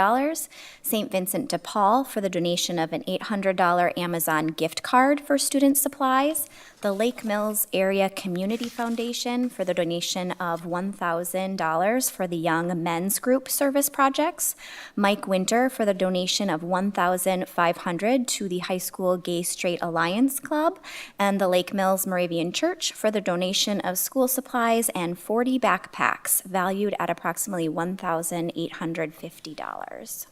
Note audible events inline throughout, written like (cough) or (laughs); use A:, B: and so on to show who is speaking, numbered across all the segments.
A: dollars, St. Vincent de Paul for the donation of an $800 Amazon gift card for student supplies, the Lake Mills Area Community Foundation for the donation of $1,000 for the Young Men's Group Service Projects, Mike Winter for the donation of $1,500 to the High School Gay Straight Alliance Club, and the Lake Mills Moravian Church for the donation of school supplies and 40 backpacks valued at approximately $1,850.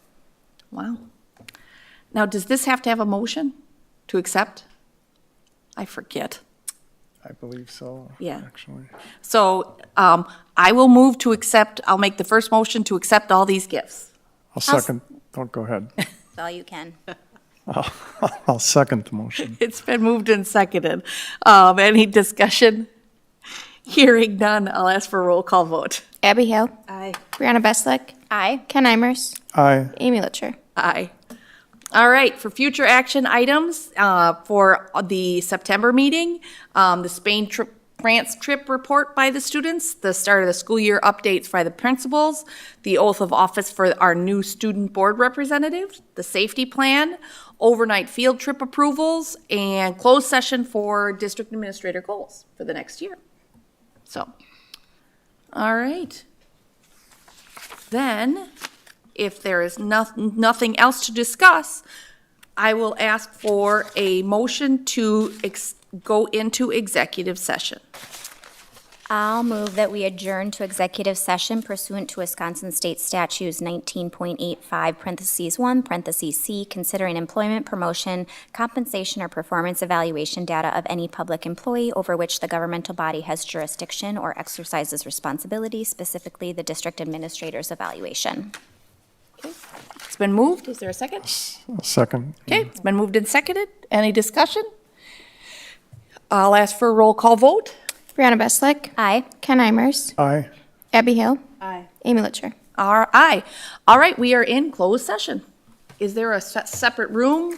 B: Wow. Now, does this have to have a motion to accept? I forget.
C: I believe so.
B: Yeah.
C: Actually,
B: So um, I will move to accept, I'll make the first motion to accept all these gifts. (laughs)
C: I'll second, don't go ahead. (laughs)
A: Well, you can.
C: I'll second the motion.
B: It's been moved and seconded. Um, Any discussion? Hearing none, I'll ask for a roll call vote.
D: Abby Hale.
B: Aye.
D: Brianna Beslick.
A: Aye.
D: Ken Imers.
C: Aye,
D: Amy Litcher.
B: Aye. All right, for future action items, uh, for the September meeting, um, the Spain trip, France trip report by the students, the start of the school year updates by the principals, the oath of office for our new student board representative, the safety plan, overnight field trip approvals, and closed session for district administrator goals for the next year. So, all right. Then, if there is noth- nothing else to discuss, I will ask for a motion to ex- go into executive session.
A: I'll move that we adjourn to executive session pursuant to Wisconsin State Statutes 19.85, parentheses 1, parentheses C, considering employment, promotion, compensation, or performance evaluation data of any public employee over which the governmental body has jurisdiction or exercises responsibility, specifically the district administrator's evaluation.
B: It's been moved. Is there a second?
C: I'll second.
B: Okay, it's been moved and seconded. Any discussion? I'll ask for a roll call vote.
D: Brianna Beslick.
A: Aye.
D: Ken Imers.
C: Aye.
D: Abby Hale. Aye. Amy Litcher.
B: Our- Aye. All right, we are in closed session. Is there a se- separate room?